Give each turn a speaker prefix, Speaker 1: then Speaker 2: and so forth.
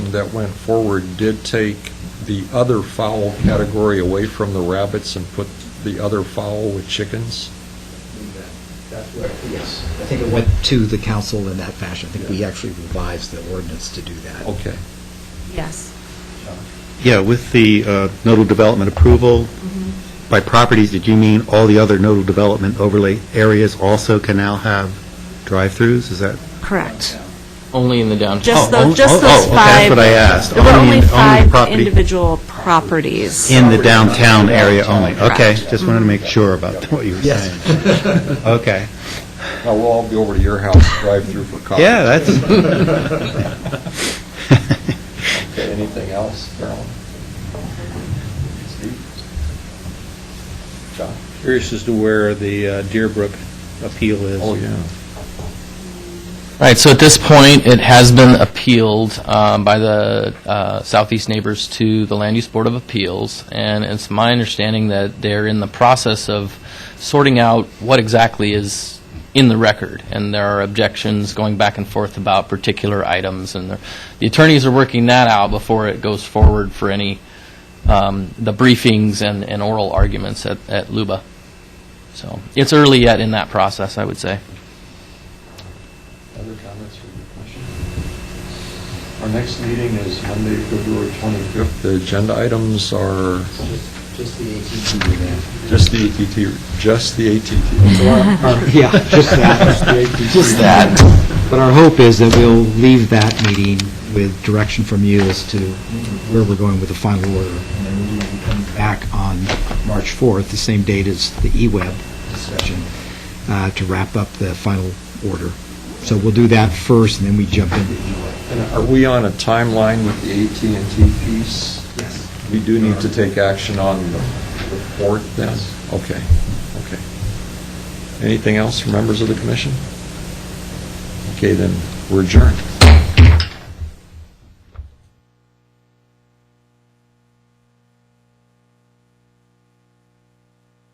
Speaker 1: that went forward did take the other fowl category away from the rabbits and put the other fowl with chickens?
Speaker 2: That's what, yes. I think it went to the council in that fashion. I think we actually revised the ordinance to do that.
Speaker 1: Okay.
Speaker 3: Yes.
Speaker 4: Yeah, with the uh, nodal development approval,
Speaker 3: Mm-hmm.
Speaker 4: by properties, did you mean all the other nodal development overlay areas also can now have drive-throughs? Is that?
Speaker 3: Correct.
Speaker 5: Only in the downtown.
Speaker 3: Just
Speaker 4: Oh,
Speaker 3: those, just
Speaker 4: oh, oh,
Speaker 3: those
Speaker 4: okay,
Speaker 3: five.
Speaker 4: that's what I asked.
Speaker 3: There were
Speaker 4: Only in-
Speaker 3: only
Speaker 4: only
Speaker 3: five
Speaker 4: property-
Speaker 3: individual properties.
Speaker 4: In the downtown area only? Okay,
Speaker 3: Correct.
Speaker 4: just wanted to make sure about what you were
Speaker 2: Yes.
Speaker 4: saying. Okay,
Speaker 1: Now, Uh, we'll all be over to your house, drive through for coffee.
Speaker 4: yeah, that's,
Speaker 1: Okay, anything else, Carolyn? Steve? John?
Speaker 6: Curious as to where the uh, Deerbrook appeal is.
Speaker 1: Oh, yeah.
Speaker 5: Right, so at this point, it has been appealed um, by the uh, Southeast Neighbors to the Land Use Board of Appeals, and it's my understanding that they're in the process of sorting out what exactly is in the record, and there are objections going back and forth about particular items, and they're- the attorneys are working that out before it goes forward for any, um, the briefings and and oral arguments at at Luba. So it's early yet in that process, I would say.
Speaker 1: Other comments or questions? Our next meeting is Monday, February 25th. The agenda items are
Speaker 2: Just- Just the ATT event.
Speaker 1: just the ATT, just the ATT.
Speaker 2: Uh, Yeah, just that. Just that. But our hope is that we'll leave that meeting with direction from you as to where we're going with the final order. And then we'll be coming back on March 4th, the same date as the E-Web discussion, uh, to wrap up the final order. So we'll do that first, and then we jump into E-Web.
Speaker 1: And Are we on a timeline with the AT&T piece?
Speaker 2: Yes.
Speaker 1: We do need to take action on the report then? Okay, okay. Anything else from members of the commission? Okay, then, we're adjourned.